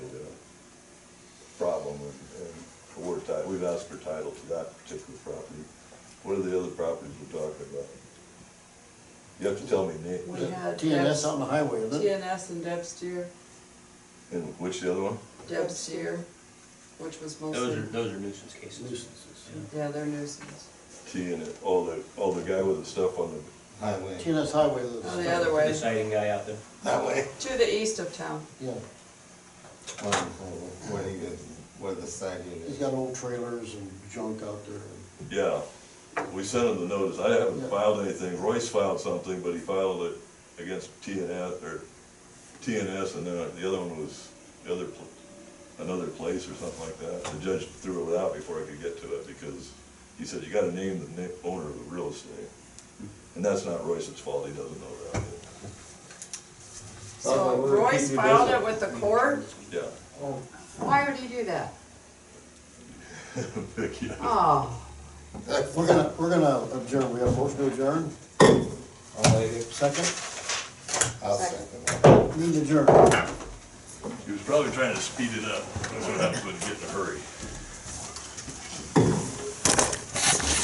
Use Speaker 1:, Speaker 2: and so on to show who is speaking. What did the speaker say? Speaker 1: we've asked for title to that particular property. What are the other properties we're talking about? You have to tell me
Speaker 2: We
Speaker 1: names,
Speaker 2: had uh,
Speaker 3: TNS on the highway, isn't it?
Speaker 2: TNS and Debsteer,
Speaker 1: and which the other one?
Speaker 2: Debsteer, which was
Speaker 4: Those are,
Speaker 2: mostly,
Speaker 4: those are nuisance cases.
Speaker 2: yeah, they're nuisance.
Speaker 1: T and, oh, the, oh, the guy with the stuff on the,
Speaker 5: Highway.
Speaker 3: TNS highway.
Speaker 2: Oh, the other way.
Speaker 4: The siding guy out there.
Speaker 5: That way.
Speaker 2: To the east of town,
Speaker 3: Yeah,
Speaker 5: Well, Where he is, where the side unit
Speaker 3: he's
Speaker 5: is.
Speaker 3: got old trailers and junk out there.
Speaker 1: yeah. We sent him the notice, I haven't
Speaker 3: Yeah.
Speaker 1: filed anything, Royce filed something, but he filed it against T and S, or T and S, and then the other one was the other, pl- another place or something like that. The judge threw it out before I could get to it, because he said, you gotta name the na- owner of the real estate. And that's not Royce's fault, he doesn't know that,
Speaker 2: so Royce filed it with the court,
Speaker 1: yeah.
Speaker 2: why would he do that?
Speaker 1: Vic, yeah.
Speaker 2: Oh,
Speaker 3: We're gonna, we're gonna adjourn, we have a motion to adjourn,
Speaker 5: I'll leave it.
Speaker 3: second,
Speaker 5: I'll second that.
Speaker 3: need adjourn.
Speaker 1: He was probably trying to speed it up, that's what happens when you get in a hurry.